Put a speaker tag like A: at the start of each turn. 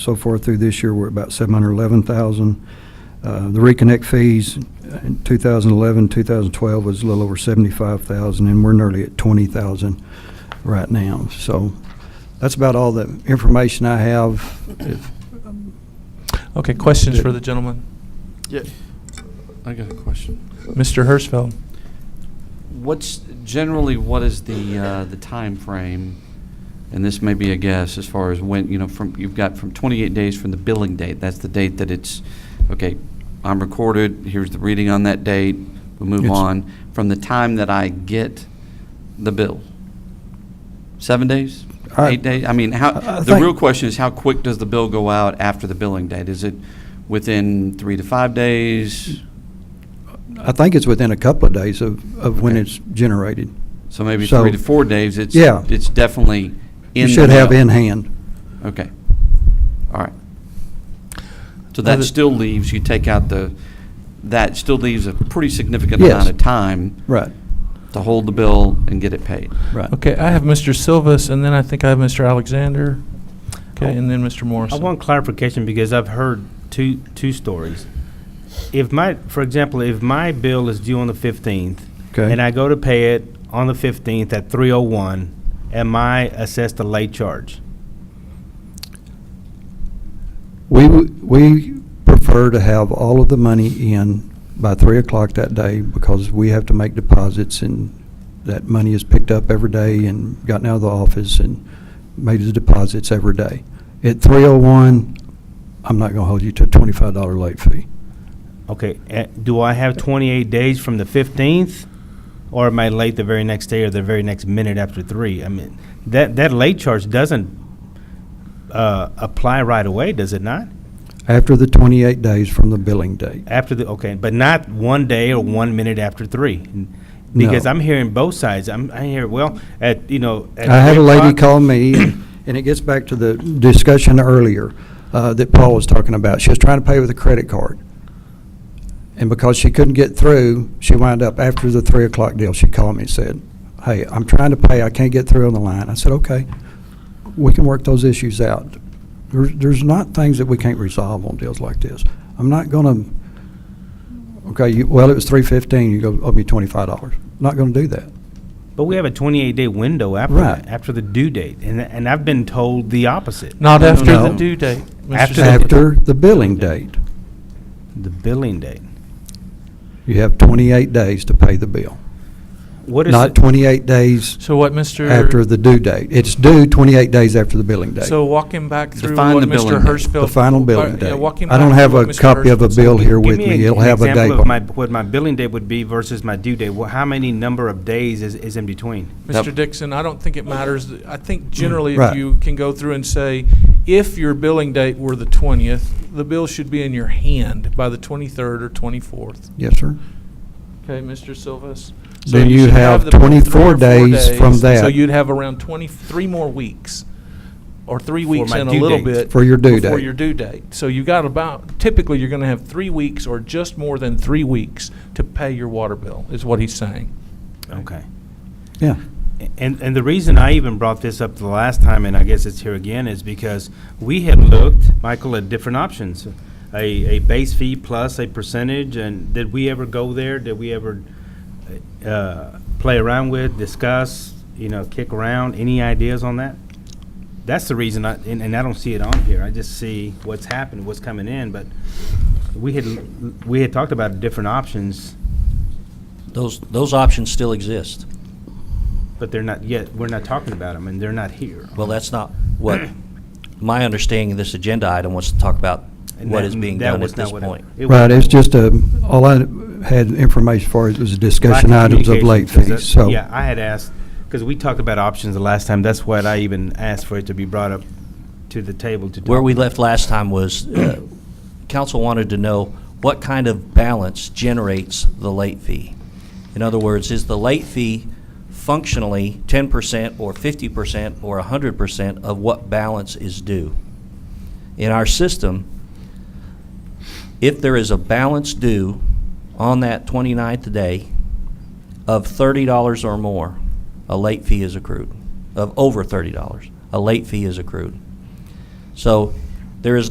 A: So far through this year, we're about 711,000. Uh, The reconnect fees in 2011, 2012 was a little over 75,000, and we're nearly at 20,000 right now. So that's about all the information I have. If-
B: Okay, questions for the gentleman?
C: Yeah, I got a question.
B: Mr. Hirschfeld?
C: What's, generally, what is the, uh, the timeframe, and this may be a guess, as far as when, you know, from, you've got from 28 days from the billing date, that's the date that it's, okay, I'm recorded, here's the reading on that date, we move
A: It's-
C: on, from the time that I get the bill? Seven days?
A: I-
C: Eight days? I mean,
A: I-
C: how,
A: I
C: the
A: think-
C: real question is, how quick does the bill go out after the billing date? Is it within three to five days?
A: I think it's within a couple of days of of when
C: Okay.
A: it's generated.
C: So maybe
A: So-
C: three to four days, it's,
A: Yeah.
C: it's definitely
A: You
C: in. the
A: should have
C: mail.
A: in hand.
C: Okay, all right. So that
B: Other-
C: still leaves, you take out the, that still leaves a pretty significant
A: Yes.
C: amount of time
A: Right,
C: to hold the bill and get it paid.
A: right.
B: Okay, I have Mr. Silvas, and then I think I have Mr. Alexander,
A: Oh.
B: okay, and then Mr.
D: I
B: Morrison.
D: want clarification because I've heard two, two stories. If my, for example, if my bill is due on the fifteenth
A: Okay.
D: and I go to pay it on the fifteenth at three oh one, am I assessed a late charge?
A: We, w- we prefer to have all of the money in by three o'clock that day because we have to make deposits and that money is picked up every day and gotten out of the office and made the deposits every day. At three oh one, I'm not gonna hold you to a twenty-five dollar late fee.
D: Okay, eh, do I have twenty-eight days from the fifteenth? Or am I late the very next day or the very next minute after three? I mean, that, that late charge doesn't, uh, apply right away, does it not?
A: After the twenty-eight days from the billing date.
D: After the, okay, but not one day or one minute after three. Because
A: No.
D: I'm hearing both sides. I'm, I hear, well, at, you know. at
A: I had a
D: three
A: lady
D: o'clock-
A: call me, and it gets back to the discussion earlier uh, that Paul was talking about. She was trying to pay with a credit card. And because she couldn't get through, she wound up after the three o'clock deal, she called me and said, hey, I'm trying to pay, I can't get through on the line. I said, okay, we can work those issues out. There's, there's not things that we can't resolve on deals like this. I'm not gonna, okay, you, well, it was three fifteen, you go, owe me twenty-five dollars. Not gonna do that.
D: But we have a twenty-eight day window after,
A: Right.
D: after the due date, and, and I've been told the opposite.
B: Not
C: No, no,
B: after the
A: no.
B: due date. Mr.
D: After the-
B: Silvas.
A: After the billing date.
D: The billing date.
A: You have 28 days to pay the bill,
D: What is,
A: not
D: it-
A: 28 days
B: So what Mr.?
A: after the due date. It's due 28 days after the billing date.
B: So walking back through
C: Define
B: what
C: the
B: Mr.
C: billing date.
B: Hirschfeld.
A: The final
B: uh,
A: billing
B: yeah,
A: date.
B: walking
A: I don't
B: back
A: have
B: through
A: a
B: what Mr.
A: copy of a
B: Hirschfeld
A: bill
B: said.
A: here with
D: give me
A: me.
D: an-
A: It'll
D: an
A: have a date.
D: example of
A: on
D: my,
A: it.
D: what my billing date would be versus my due date. Wha- How many number of days is, is in between?
B: Mr.
C: Yep.
B: Dixon, I don't think it matters. I think generally if
A: Mm. Right.
B: you can go through and say, if your billing date were the twentieth, the bill should be in your hand by the twenty-third or twenty-fourth.
A: Yes, sir.
B: Okay, Mr. Silvas? So
A: Then you
B: should
A: have
B: the bill
A: 24
B: three or four
A: days from
B: So
A: that.
B: you'd have around twenty, three more weeks, or three weeks
D: my
B: and a
D: due
B: little
D: date.
B: bit.
A: For your due
B: Before
A: date.
B: your due date. So you got about, typically, you're gonna have three weeks or just more than three weeks to pay your water bill, is what he's saying.
D: Okay.
A: Yeah.
D: And, and the reason I even brought this up the last time, and I guess it's here again, is because we had looked, Michael, at different options. A, a base fee plus a percentage, and did we ever go there? Did we ever, uh, play around with, discuss, you know, kick around? Any ideas on that? That's the reason I, and, and I don't see it on here. I just see what's happened, what's coming in, but we had, we had talked about different options,
E: Those, those options still exist.
D: but they're not yet, we're not talking about them, and they're not here.
E: Well, that's not what, my understanding of this agenda item wants to talk about
D: And
E: what
D: that-
E: is being
D: that
E: done
D: was
E: at
D: not
E: this
D: what it-
E: point.
D: it was-
A: Right, it's just a, all I had information for it was discussion
D: Lack
A: items of
D: communication,
A: late
D: 'cause
A: fees,
D: that's-
A: so.
D: Yeah, I had asked, because we talked about options the last time, that's what I even asked for it to be brought up to the table to talk.
E: Where we left last time was, uh, council wanted to know what kind of balance generates the late fee. In other words, is the late fee functionally ten percent or fifty percent or hundred percent of what balance is due? In our system, if there is a balance due on that 29th day of thirty dollars or more, a late fee is accrued. Of over thirty dollars, a late fee is accrued. So There is